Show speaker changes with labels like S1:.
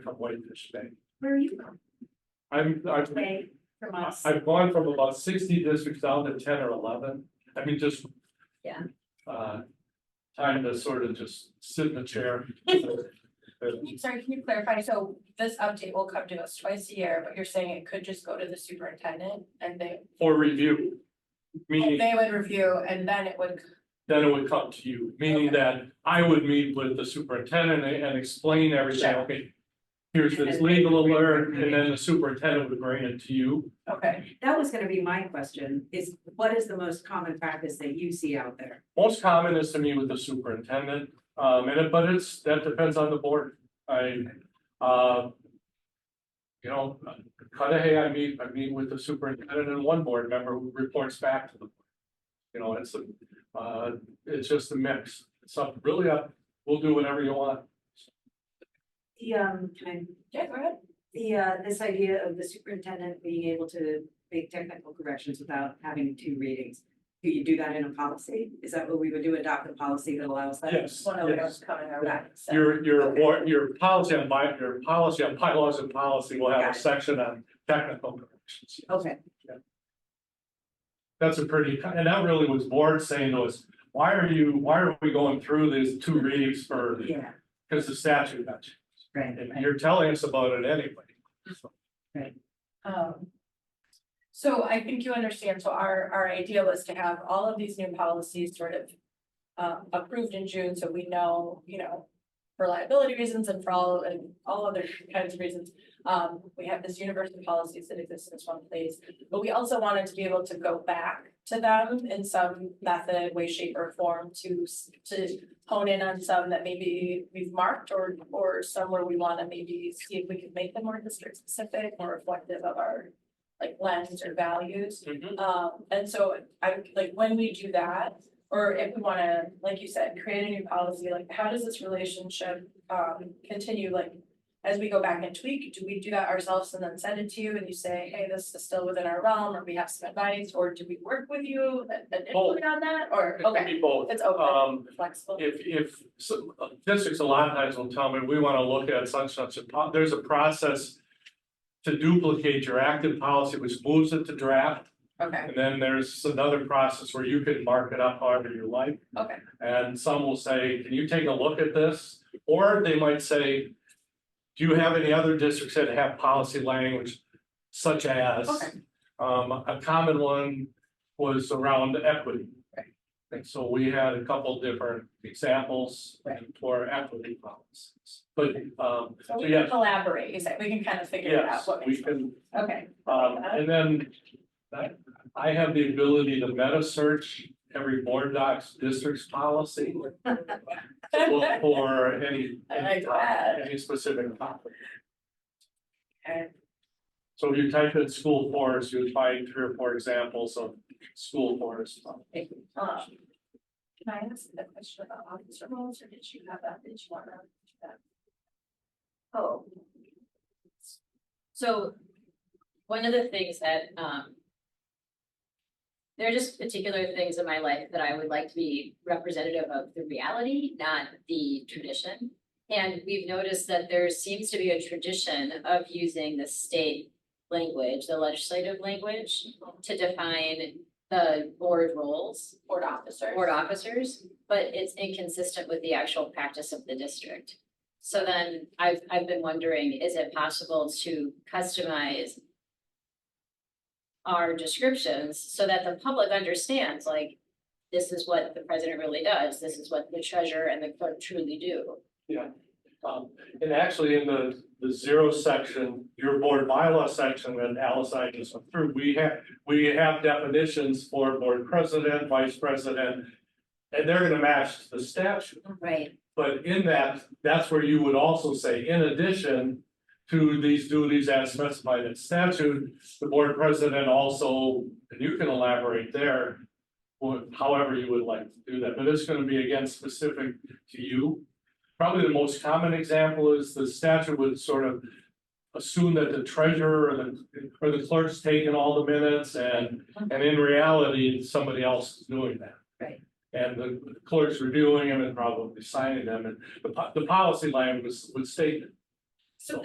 S1: from what it is today.
S2: Where are you from?
S1: I'm, I've,
S2: Way from us.
S1: I've gone from about sixty districts down to ten or eleven, I mean, just.
S2: Yeah.
S1: Uh, time to sort of just sit in the chair.
S2: Sorry, can you clarify? So this update will come to us twice a year, but you're saying it could just go to the superintendent and they,
S1: For review. Meaning,
S2: they would review and then it would.
S1: then it would come to you, meaning
S2: Okay.
S1: that I would meet with the superintendent and, and explain everything,
S2: Sure.
S1: okay. Here's
S3: And
S1: this
S3: then-
S1: legal alert, and then the superintendent would bring it to you.
S2: Okay,
S3: That was gonna be my question, is what is the most common practice that you see out there?
S1: Most common is to meet with the superintendent, um, and it, but it's, that depends on the board, I, uh. You know, kind of, hey, I meet, I meet with the superintendent and one board member who reports back to them. You know, it's, a, uh, it's just a mix, it's up, really up, we'll do whatever you want.
S4: The um, can I-
S2: yeah, go ahead.
S4: the uh, this idea of the superintendent being able to make technical corrections without having two readings. Do you do that in a policy? Is that what we would do, adopt a policy that allows that?
S1: Yes,
S2: One of
S1: yes,
S2: those coming our way. so.
S1: your, your, war- your policy on by, your policy on bylaws and policy will have a section on technical corrections.
S4: Okay,
S1: That's a pretty, and that really was board saying to us, why are you, why are we going through these two readings for,
S4: yeah,
S1: because the statute got you.
S4: right,
S1: And
S4: right,
S1: you're telling us about it anyway.
S2: Um. So I think you understand, so our, our idea was to have all of these new policies sort of. Um, approved in June, so we know, you know, for liability reasons and for all, and all other kinds of reasons. Um, we have this universe of policies that exist in this one place, but we also wanted to be able to go back to them in some method, way, shape or form to, s- to. Hone in on some that maybe we've marked or, or some where we wanna maybe see if we could make them more district specific, more reflective of our. Like lens or values,
S1: Mm-hmm.
S2: um, and so I, like, when we do that, or if we wanna, like you said, create a new policy, like, how does this relationship, um, continue, like? As we go back and tweak, do we do that ourselves and then send it to you and you say, hey, this is still within our realm, or we have some advice, or do we work with you and, and
S1: Both.
S2: input on that, or,
S1: It can
S2: okay,
S1: be both.
S2: it's open,
S1: Oh. Um,
S2: flexible.
S1: if, if, so, uh, districts a lot of times will tell me, we want to look at such, such, a po- there's a process to duplicate your active policy, which moves it to draft.
S2: Okay,
S1: And then there's another process where you can mark it up however you like.
S2: Okay.
S1: And some will say, can you take a look at this? Or they might say, do you have any other districts that have policy language such as?
S2: Okay.
S1: Um, a common one was around equity.
S2: Right.
S1: And so we had a couple different examples
S2: Right.
S1: for equity policies. But, um,
S2: so we
S1: yeah.
S2: can collaborate, you said, we can kind of figure it out,
S1: yes,
S2: what makes
S1: we
S2: sense.
S1: can,
S2: Okay,
S1: um, and then I, I have the ability to meta search every board docs district's policy. for- For any,
S2: I like
S1: any topic,
S2: that.
S1: any specific topic.
S2: Okay.
S1: So if you type in school forest, you would find three or four examples of school forest.
S2: Um, Can I ask a question about officer roles, or did you have that, did you want to?
S5: Oh. So, one of the things that, um. There are just particular things in my life that I would like to be representative of the reality, not the tradition. And we've noticed that there seems to be a tradition of using the state language, the legislative language, to define the board roles
S2: Board officers.
S5: board officers, but it's inconsistent with the actual practice of the district. So then I've, I've been wondering, is it possible to customize our descriptions so that the public understands, like, this is what the president really does, this is what the treasurer and the clerk truly do?
S1: Um, and actually in the, the zero section, your board bylaw section that Alice and I just went through, we have, we have definitions for board president, vice president. And they're gonna match the statute.
S5: Right.
S1: But in that, that's where you would also say, in addition to these duties as specified in statute, the board president also, and you can elaborate there. or however you would like to do that, but it's gonna be again specific to you. Probably the most common example is the statute would sort of assume that the treasurer or the, or the clerk's taking all the minutes and, and in reality, somebody else is doing that.
S5: Right.
S1: And the clerk's reviewing them and probably signing them, and the, po- the policy language would state it.